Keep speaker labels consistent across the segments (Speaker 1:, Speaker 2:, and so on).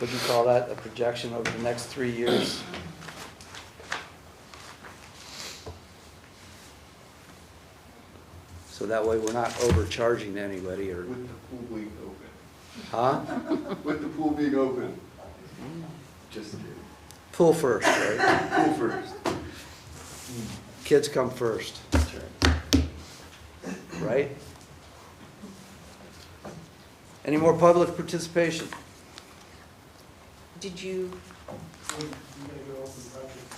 Speaker 1: would you call that a projection over the next three years? So that way we're not overcharging anybody or,
Speaker 2: With the pool being open.
Speaker 1: huh?
Speaker 2: With the pool being open. Just kidding.
Speaker 1: Pool first, right?
Speaker 2: Pool first.
Speaker 1: Kids come first,
Speaker 2: That's right.
Speaker 1: right? Any more public participation?
Speaker 3: Did you?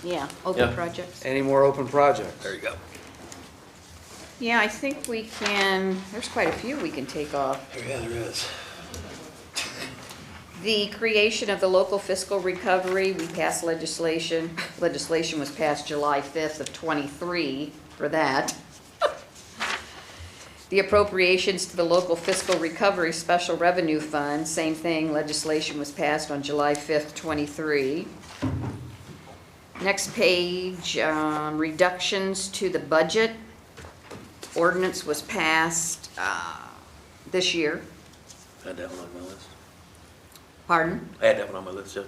Speaker 3: Yeah,
Speaker 4: Yeah.
Speaker 3: open projects.
Speaker 1: Any more open projects? There you go.
Speaker 3: Yeah, I think we can, there's quite a few we can take off.
Speaker 1: Oh, Yeah, there is.
Speaker 3: The creation of the local fiscal recovery, we passed legislation. Legislation was passed July 5th of '23 for that. The appropriations to the local fiscal recovery special revenue fund, same thing, legislation was passed on July 5th, '23. Next page, um, reductions to the budget. Ordinance was passed uh, this year,
Speaker 4: I had that one on my list.
Speaker 3: pardon?
Speaker 4: I had that one on my list, yeah.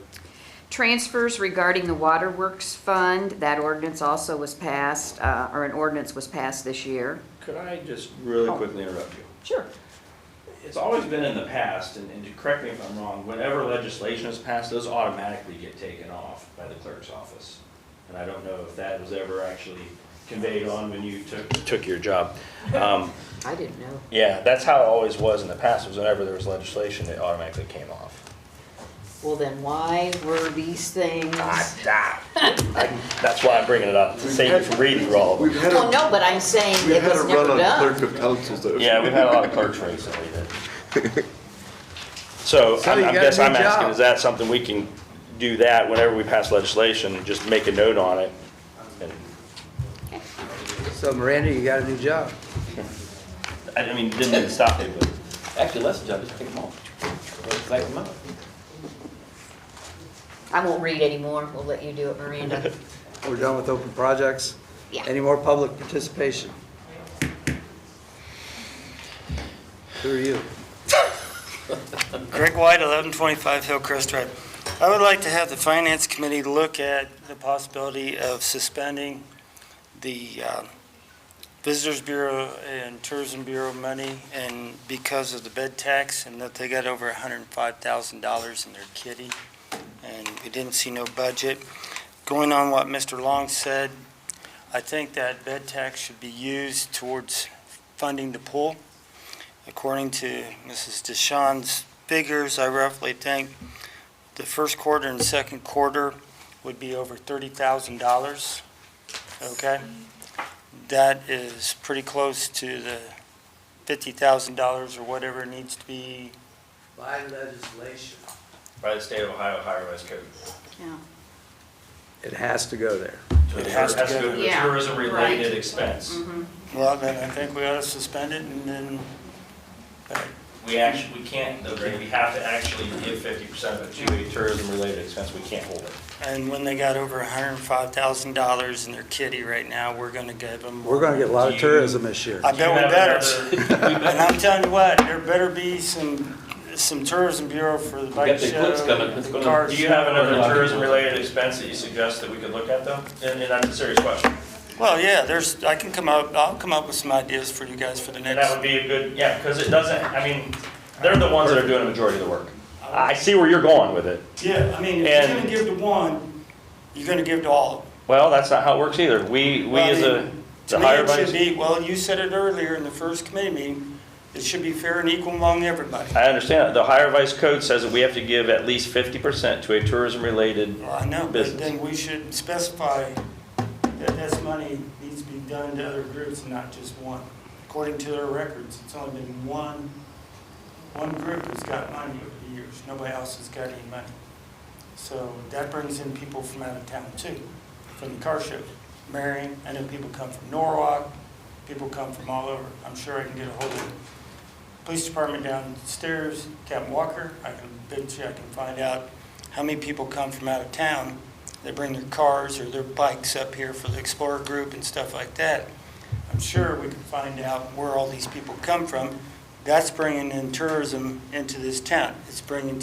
Speaker 3: Transfers regarding the Waterworks Fund, that ordinance also was passed, uh, or an ordinance was passed this year.
Speaker 5: Could I just Oh. really quickly interrupt you?
Speaker 3: Sure.
Speaker 5: It's always been in the past, and, and correct me if I'm wrong, whenever legislation is passed, those automatically get taken off by the clerk's office. And I don't know if that was ever actually conveyed on when you took, took your job. Um,
Speaker 3: I didn't know.
Speaker 5: yeah, that's how it always was in the past, was whenever there was legislation, it automatically came off.
Speaker 3: Well, then why were these things?
Speaker 5: Ah, ah. I- That's why I'm bringing it up, to save you from reading through all of them.
Speaker 2: We've had
Speaker 3: Well,
Speaker 2: a,
Speaker 3: no, but I'm saying
Speaker 2: we've
Speaker 3: it
Speaker 2: had a
Speaker 3: was never
Speaker 2: run on
Speaker 3: done.
Speaker 2: clerk of council though.
Speaker 5: Yeah, we've had a lot of clerks recently that. So
Speaker 1: So
Speaker 5: I'm-
Speaker 1: you
Speaker 5: I
Speaker 1: got a
Speaker 5: guess
Speaker 1: new
Speaker 5: I'm asking,
Speaker 1: job.
Speaker 5: is that something we can do that whenever we pass legislation, just make a note on it? And-
Speaker 1: So Miranda, you got a new job.
Speaker 5: I I mean, didn't mean to stop you, but
Speaker 4: Actually, less than, just take them all. Like them out.
Speaker 3: I won't read anymore. We'll let you do it, Miranda.
Speaker 1: We're done with open projects.
Speaker 3: Yeah.
Speaker 1: Any more public participation? Who are you?
Speaker 6: Greg White, 1125 Hillcrest Drive. I would like to have the Finance Committee look at the possibility of suspending the um, Visitors Bureau and Tourism Bureau money and because of the bed tax and that they got over $105,000 in their kitty and we didn't see no budget. Going on what Mr. Long said, I think that bed tax should be used towards funding the pool. According to Mrs. DeShawn's figures, I roughly think the first quarter and second quarter would be over thirty thousand dollars, okay? That is pretty close to the fifty thousand dollars or whatever needs to be.
Speaker 1: By legislation.
Speaker 5: by the state of Ohio Higher-Rise Code.
Speaker 3: Yeah.
Speaker 1: It has to go there.
Speaker 6: It has to go.
Speaker 3: to Yeah,
Speaker 5: Tourism-related
Speaker 3: right. Mm-hmm.
Speaker 5: expense.
Speaker 6: Well, then I think we ought to suspend it and then,
Speaker 5: We actually, we can't, though, Greg, we have to actually give fifty percent of it to a tourism-related expense, we can't hold it.
Speaker 6: and when they got over hundred and five thousand dollars in their kitty right now, we're gonna give them.
Speaker 1: We're gonna get a lot of
Speaker 5: You-
Speaker 1: tourism this year.
Speaker 6: I bet we better.
Speaker 5: Do you have another-
Speaker 6: And I'm telling you what, there better be some, some tourism bureau for the bike
Speaker 4: got the
Speaker 6: show.
Speaker 4: clips coming. It's
Speaker 6: the
Speaker 4: gonna-
Speaker 6: car
Speaker 5: Do you have another
Speaker 6: show.
Speaker 5: tourism-related expense that you suggest that we could look at, though? And, and that's a serious question.
Speaker 6: Well, yeah, there's, I can come up, I'll come up with some ideas for you guys for the
Speaker 5: And that
Speaker 6: next.
Speaker 5: would be a good, yeah, because it doesn't, I mean, they're the ones that are doing the majority of the work. I see where you're going with it.
Speaker 6: Yeah, I mean,
Speaker 5: And-
Speaker 6: if you're gonna give to one, you're gonna give to all.
Speaker 5: Well, that's not how it works either. We, we
Speaker 6: Well, I
Speaker 5: as a,
Speaker 6: mean,
Speaker 5: the
Speaker 6: To me,
Speaker 5: higher
Speaker 6: it should
Speaker 5: bodies,
Speaker 6: be, well, you said it earlier in the first committee meeting, it should be fair and equal among everybody.
Speaker 5: I understand, that. the higher vice code says that we have to give at least fifty percent to a tourism-related,
Speaker 6: Well, I know, but
Speaker 5: Business.
Speaker 6: then we should specify that this money needs to be done to other groups and not just one. According to their records, it's only been one, one group that's got money over the years. Nobody else has got any money. So that brings in people from out of town too, from the car show. Marion, I know people come from Norwalk, people come from all over. I'm sure I can get a hold of the police department downstairs, Captain Walker. I can bet you I can find out how many people come from out of town. They bring their cars or their bikes up here for the Explorer Group and stuff like that. I'm sure we can find out where all these people come from. That's bringing in tourism into this town. It's bringing